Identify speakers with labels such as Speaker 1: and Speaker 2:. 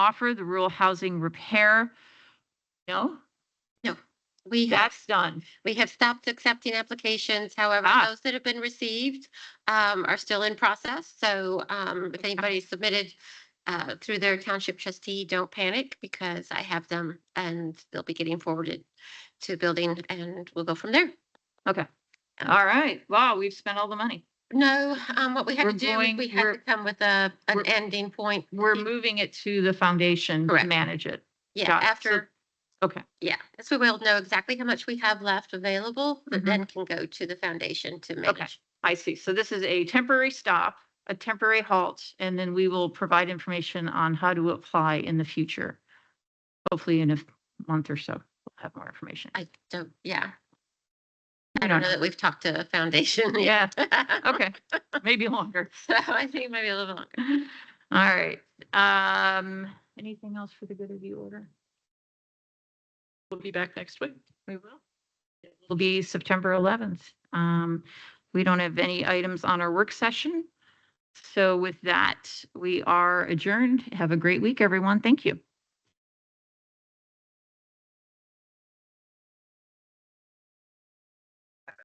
Speaker 1: offer the rural housing repair. No,
Speaker 2: We have,
Speaker 1: that's done.
Speaker 2: we have stopped accepting applications. However,
Speaker 1: Ah.
Speaker 2: those that have been received um, are still in process. So um, if anybody submitted uh, through their township trustee, don't panic because I have them and they'll be getting forwarded to building and we'll go from there.
Speaker 1: All right. Wow, we've spent all the money.
Speaker 2: No, um, what we had
Speaker 1: We're
Speaker 2: to do, is
Speaker 1: going-
Speaker 2: we had to
Speaker 1: we're-
Speaker 2: come with a, an
Speaker 1: we're-
Speaker 2: ending point.
Speaker 1: We're moving it to the foundation to
Speaker 2: Correct.
Speaker 1: manage it.
Speaker 2: Yeah,
Speaker 1: got it. So-
Speaker 2: after.
Speaker 1: okay.
Speaker 2: Yeah, so we will know exactly how much we have left available, that
Speaker 1: Mhm.
Speaker 2: then can go to the foundation to manage.
Speaker 1: I see. So this is a temporary stop, a temporary halt, and then we will provide information on how to apply in the future. Hopefully in a month or so, we'll have more information.
Speaker 2: I don't, yeah.
Speaker 1: We
Speaker 2: I
Speaker 1: don't
Speaker 2: don't know that we've talked to a foundation yet.
Speaker 1: Yeah, okay, maybe longer.
Speaker 2: So I think maybe a little longer.
Speaker 1: All right, um, anything else for the good of the order?
Speaker 3: We'll be back next week.
Speaker 1: We will. It will be September 11th. Um, We don't have any items on our work session. So with that, we are adjourned. Have a great week, everyone. Thank you.